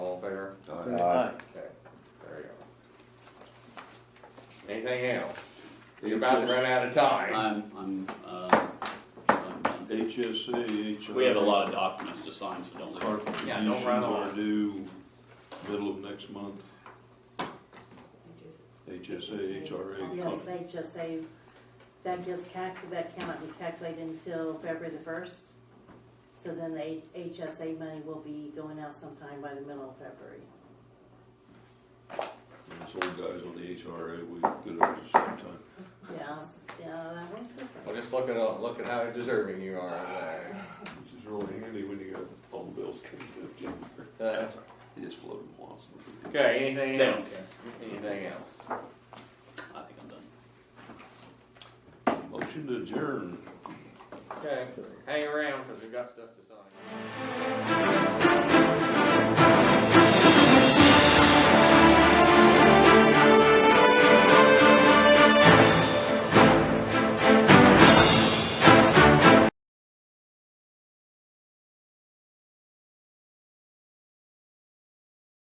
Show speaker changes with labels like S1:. S1: Aye.
S2: Okay, there you
S3: Anything else? You're about to run out of time.
S4: I'm, I'm, uh, I'm- I'm-
S1: HSC, HR.
S4: we have a lot of documents to sign, so don't
S1: Our
S4: leave.
S3: Yeah, don't run on.
S1: contributions are due middle of next month, HSA,
S5: Oh, Yes,
S1: HRA.
S5: HSA, that gets calc, that cannot be calculated until February the first. So then the H- HSA money will be going out sometime by the middle of February.
S1: These old guys on the HRA, we get ours at the same time.
S5: Yes, yeah, that was
S3: Well,
S5: different.
S3: just look at, look at how deserving you are of that.
S1: This is really handy when you got all the bills coming up, Jim.
S3: Uh,
S1: You just float them once.
S3: Okay, anything
S4: They don't
S3: else? Anything else?
S4: I think I'm done.
S1: Motion to adjourn.
S3: Okay, hang around, cause we've got stuff to sign.